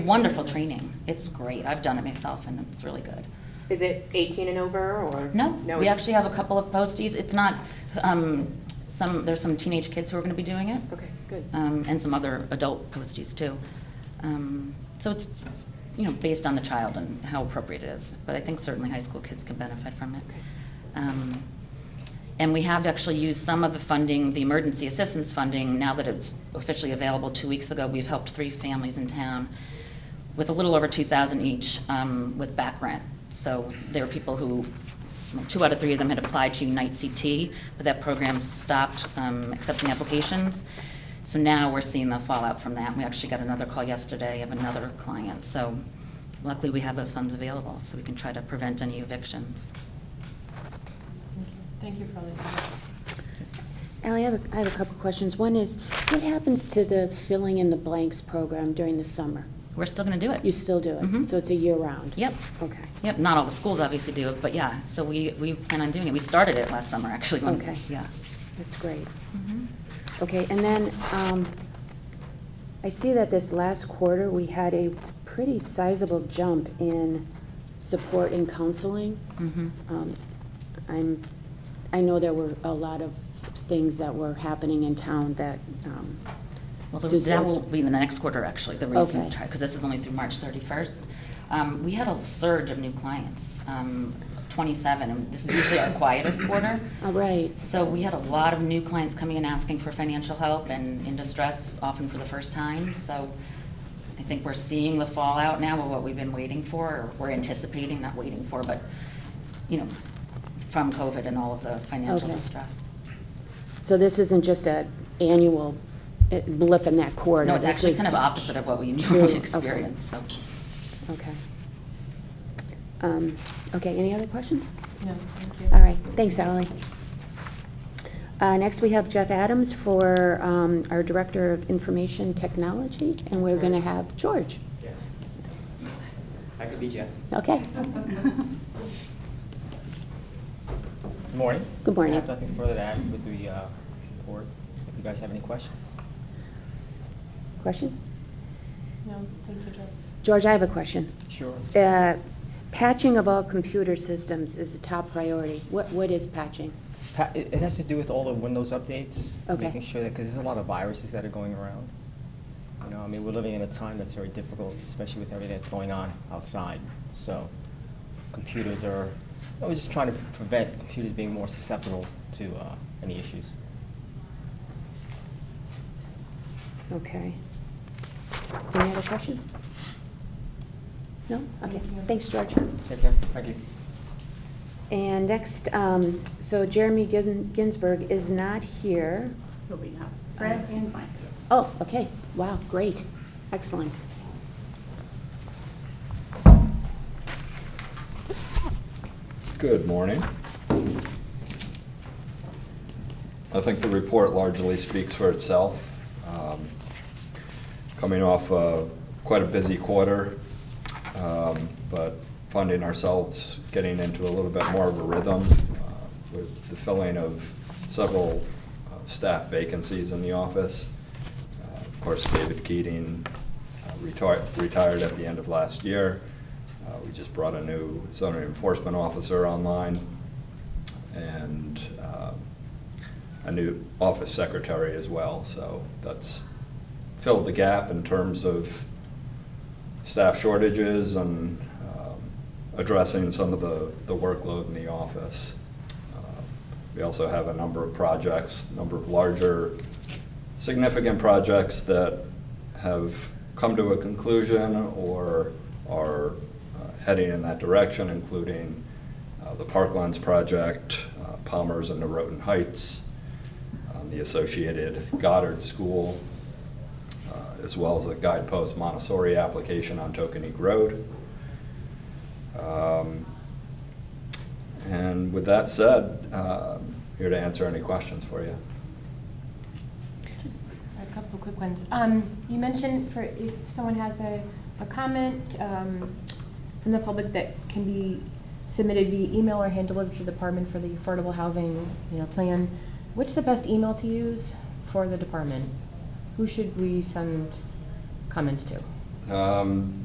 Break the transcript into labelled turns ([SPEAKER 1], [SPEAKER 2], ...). [SPEAKER 1] Wonderful training. It's great. I've done it myself and it's really good.
[SPEAKER 2] Is it 18 and over or?
[SPEAKER 1] No, we
[SPEAKER 2] it's-
[SPEAKER 1] actually have a couple of posties. It's not, um, some, there's some teenage kids who are gonna be doing it.
[SPEAKER 2] Okay, good.
[SPEAKER 1] Um, and some other adult posties too. Um, so it's, you know, based on the child and how appropriate it is. But I think certainly high school kids can benefit from it.
[SPEAKER 2] Okay.
[SPEAKER 1] Um, And we have actually used some of the funding, the emergency assistance funding, now that it's officially available two weeks ago. We've helped three families in town with a little over 2,000 each um, with back rent. So there are people who, two out of three of them had applied to Unite CT, but that program stopped um, accepting applications. So now we're seeing the fallout from that. We actually got another call yesterday of another client. So luckily, we have those funds available, so we can try to prevent any evictions.
[SPEAKER 3] Thank you for all the comments.
[SPEAKER 4] Ally, I have, a I have a couple questions. One is, what happens to the filling in the blanks program during the summer?
[SPEAKER 1] We're still going to do it.
[SPEAKER 4] You still do
[SPEAKER 1] Mhm.
[SPEAKER 4] it? So it's a year-round?
[SPEAKER 1] Yep,
[SPEAKER 4] Okay.
[SPEAKER 1] yep, not all the schools obviously do, it, but yeah, so we, we plan on doing it. We started it last summer, actually. when-
[SPEAKER 4] Okay.
[SPEAKER 1] Yeah.
[SPEAKER 4] That's great. Okay, and then, um, I see that this last quarter, we had a pretty sizable jump in support and counseling.
[SPEAKER 1] Mhm.
[SPEAKER 4] Um, I'm, I know there were a lot of things that were happening in town that, um,
[SPEAKER 1] Well, the-
[SPEAKER 4] Does
[SPEAKER 1] that
[SPEAKER 4] it-
[SPEAKER 1] will be in the next quarter, actually, the recent,
[SPEAKER 4] Okay.
[SPEAKER 1] because this is only through March 31st. Um, We had a surge of new clients, um, 27, and this is usually our quietest quarter.
[SPEAKER 4] all right,
[SPEAKER 1] So we had a lot of new clients coming in asking for financial help and in distress, often for the first time. So I think we're seeing the fallout now of what we've been waiting for, or we're anticipating, not waiting for, but, you know, from COVID and all of the financial
[SPEAKER 4] Okay.
[SPEAKER 1] distress.
[SPEAKER 4] So this isn't just a annual uh, blip in that corridor?
[SPEAKER 1] No, it's
[SPEAKER 4] This
[SPEAKER 1] actually
[SPEAKER 4] is-
[SPEAKER 1] kind of opposite of what we
[SPEAKER 4] True,
[SPEAKER 1] normally
[SPEAKER 4] okay.
[SPEAKER 1] experience, so.
[SPEAKER 4] Okay. Um, Okay, any other questions?
[SPEAKER 3] No, thank you.
[SPEAKER 4] All right, thanks, Ally. Uh, Next, we have Jeff Adams for um, our Director of Information Technology, and we're going to have George.
[SPEAKER 5] Yes. I could be Jeff.
[SPEAKER 4] Okay,
[SPEAKER 5] Good morning.
[SPEAKER 4] Good morning.
[SPEAKER 5] I have nothing further to add with the uh, report. If you guys have any questions.
[SPEAKER 4] questions?
[SPEAKER 3] No, thank you, Joe.
[SPEAKER 4] George, I have a question.
[SPEAKER 5] Sure.
[SPEAKER 4] Uh, Patching of all computer systems is a top priority. What What is patching?
[SPEAKER 5] Pa- It it has to do with all the Windows updates.
[SPEAKER 4] Okay.
[SPEAKER 5] Making sure that, because there's a lot of viruses that are going around. You know, I mean, we're living in a time that's very difficult, especially with everything that's going on outside. So computers are, I was just trying to prevent computers being more susceptible to uh, any issues.
[SPEAKER 4] Okay. Any other questions? No? Okay, thanks, George.
[SPEAKER 5] Take care. Thank you.
[SPEAKER 4] And next, um, so Jeremy Gin- Ginsburg is not here. Uh,
[SPEAKER 6] He'll be out. Fred and Mike.
[SPEAKER 4] Oh, okay, wow, great, excellent.
[SPEAKER 7] Good morning. I think the report largely speaks for itself. Um, Coming off uh, quite a busy quarter, um, but finding ourselves getting into a little bit more of a rhythm uh, with the filling of several uh, staff vacancies in the office. Uh, Of course, David Keating uh, retired retired at the end of last year. Uh, We just brought a new zoning enforcement officer online, and um, a new office secretary as well. So that's filled the gap in terms of staff shortages and um, addressing some of the the workload in the office. Uh, We also have a number of projects, a number of larger, significant projects that have come to a conclusion or are uh, heading in that direction, including uh, the Parklands project, uh, Palmer's and the Roten Heights, um, the associated Goddard School, uh, as well as the Guidepost Montessori application on Tokenique Road. Um, And with that said, um, here to answer any questions for you.
[SPEAKER 3] Just a couple of quick ones. Um, You mentioned for, if someone has a, a comment um, from the public that can be submitted via email or hand-delivered to the department for the affordable housing, you know, plan, what's the best email to use for the department? Who should we send comments to?
[SPEAKER 7] Um,